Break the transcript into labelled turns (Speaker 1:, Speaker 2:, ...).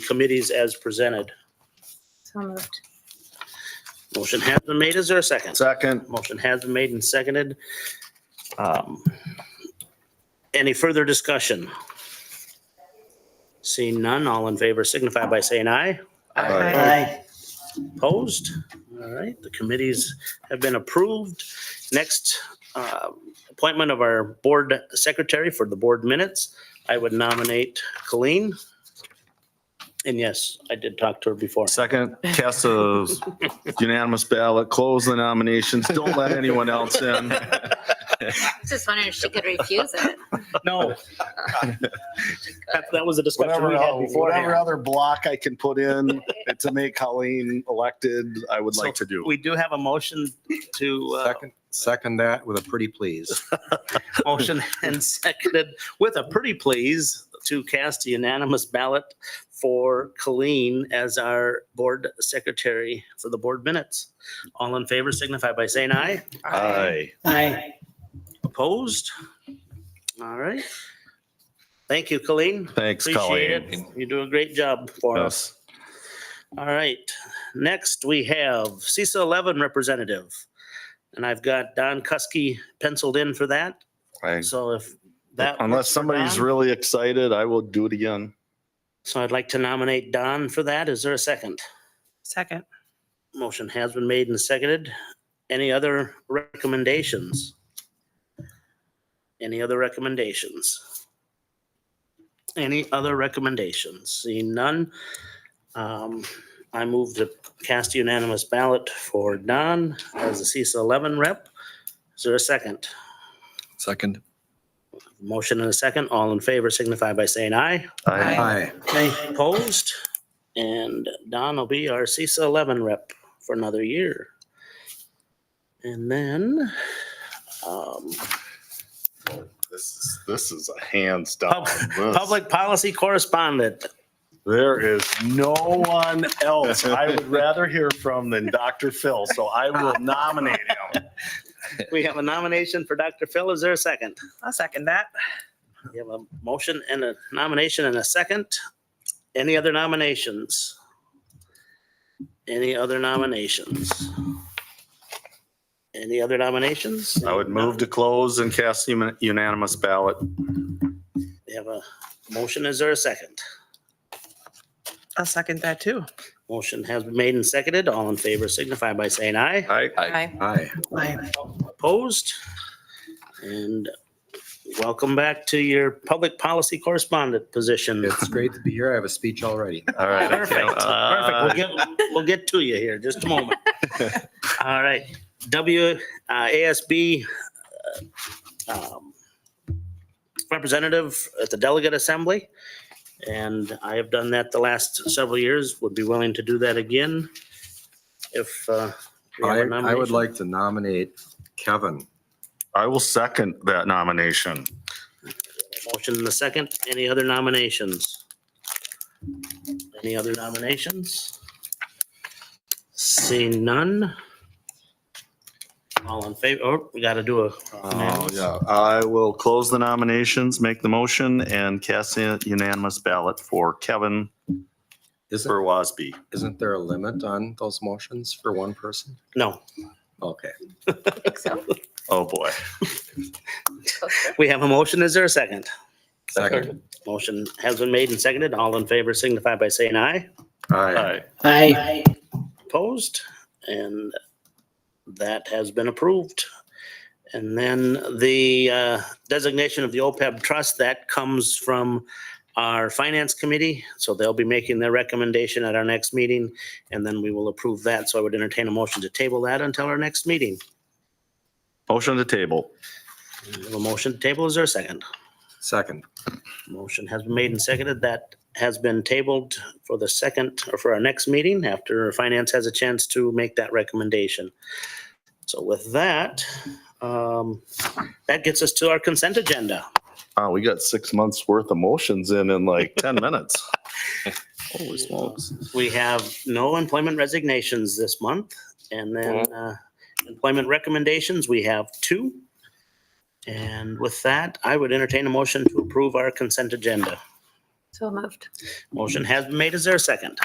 Speaker 1: committees as presented.
Speaker 2: So moved.
Speaker 1: Motion has been made. Is there a second?
Speaker 3: Second.
Speaker 1: Motion has been made and seconded. Um, Any further discussion? Seeing none, all in favor signify by saying aye. Opposed? All right, the committees have been approved. Next, uh, appointment of our board secretary for the board minutes. I would nominate Colleen. And yes, I did talk to her before.
Speaker 3: Second, cast a unanimous ballot, close the nominations, don't let anyone else in.
Speaker 2: I was just wondering if she could refuse it.
Speaker 1: No. That that was a discussion
Speaker 3: Whatever,
Speaker 1: we had
Speaker 3: el- whatever
Speaker 1: beforehand.
Speaker 3: other block I can put in to make Colleen elected, I would like to do.
Speaker 1: We do have a motion to, uh,
Speaker 4: Second, second that with a pretty please.
Speaker 1: motion and seconded with a pretty please to cast a unanimous ballot for Colleen as our board secretary for the board minutes. All in favor signify by saying aye.
Speaker 3: Aye.
Speaker 1: Opposed? All right. Thank you, Colleen.
Speaker 3: Thanks,
Speaker 1: Appreciate it.
Speaker 3: Colleen.
Speaker 1: You do a great job for us.
Speaker 3: Yes.
Speaker 1: All right, next we have CISA 11 representative. And I've got Don Kuski penciled in for that,
Speaker 3: I-
Speaker 1: so if that.
Speaker 3: Unless
Speaker 1: works for
Speaker 3: somebody's
Speaker 1: Don-
Speaker 3: really excited, I will do it again.
Speaker 1: So I'd like to nominate Don for that. Is there a second? Second. Motion has been made and seconded. Any other recommendations? Any other recommendations? Any other recommendations? Seeing none, um, I move to cast unanimous ballot for Don as the CISA 11 rep. Is there a second?
Speaker 4: Second.
Speaker 1: Motion and a second. All in favor signify by saying aye.
Speaker 3: Aye.
Speaker 4: Aye.
Speaker 1: Opposed? And Don will be our CISA 11 rep for another year. And then, um,
Speaker 3: This is, this is a hands down.
Speaker 1: pub- public policy correspondent.
Speaker 3: There is no one else I would rather hear from than Dr. Phil, so I will nominate him.
Speaker 1: We have a nomination for Dr. Phil. Is there a second?
Speaker 5: I'll second that.
Speaker 1: We have a motion and a nomination and a second. Any other nominations? Any other nominations? Any other nominations?
Speaker 3: I would move to close and cast uni- unanimous ballot.
Speaker 1: We have a motion. Is there a second?
Speaker 5: I'll second that too.
Speaker 1: Motion has been made and seconded. All in favor signify by saying aye.
Speaker 3: Aye.
Speaker 5: Aye.
Speaker 4: Aye.
Speaker 5: Aye.
Speaker 1: Opposed? And welcome back to your public policy correspondent position.
Speaker 4: It's great to be here. I have a speech already.
Speaker 3: All right.
Speaker 1: Perfect,
Speaker 3: Uh,
Speaker 1: perfect. We'll get, we'll get to you here, just a moment. All right, W, uh, ASB, uh, um, representative at the delegate assembly. And I have done that the last several years, would be willing to do that again if, uh, we have a
Speaker 4: I, I would
Speaker 1: nomination.
Speaker 4: like to nominate Kevin.
Speaker 3: I will second that nomination.
Speaker 1: Motion in the second. Any other nominations? Any other nominations? Seeing none. All in favor, oh, we gotta do a.
Speaker 3: Oh, yeah. I will close the nominations, make the motion, and cast a unanimous ballot for Kevin
Speaker 4: Isn't,
Speaker 3: for Wasby.
Speaker 4: isn't there a limit on those motions for one person?
Speaker 1: No,
Speaker 4: Okay.
Speaker 3: Oh, boy.
Speaker 1: we have a motion. Is there a second?
Speaker 4: Second.
Speaker 1: Motion has been made and seconded. All in favor signify by saying aye.
Speaker 4: Aye.
Speaker 3: Aye.
Speaker 1: Opposed? And that has been approved. And then the uh, designation of the OPEB trust, that comes from our finance committee. So they'll be making their recommendation at our next meeting, and then we will approve that. So I would entertain a motion to table that until our next meeting.
Speaker 3: Motion to table.
Speaker 1: We have A motion to table, is there a second?
Speaker 4: Second.
Speaker 1: Motion has been made and seconded. That has been tabled for the second or for our next meeting after finance has a chance to make that recommendation. So with that, um, that gets us to our consent agenda.
Speaker 3: Oh, we got six months worth of motions in in like 10 minutes. Holy smokes.
Speaker 1: We have no employment resignations this month and then, uh, employment recommendations, we have two. And with that, I would entertain a motion to approve our consent agenda.
Speaker 2: So moved.
Speaker 1: Motion has been made. Is there a second?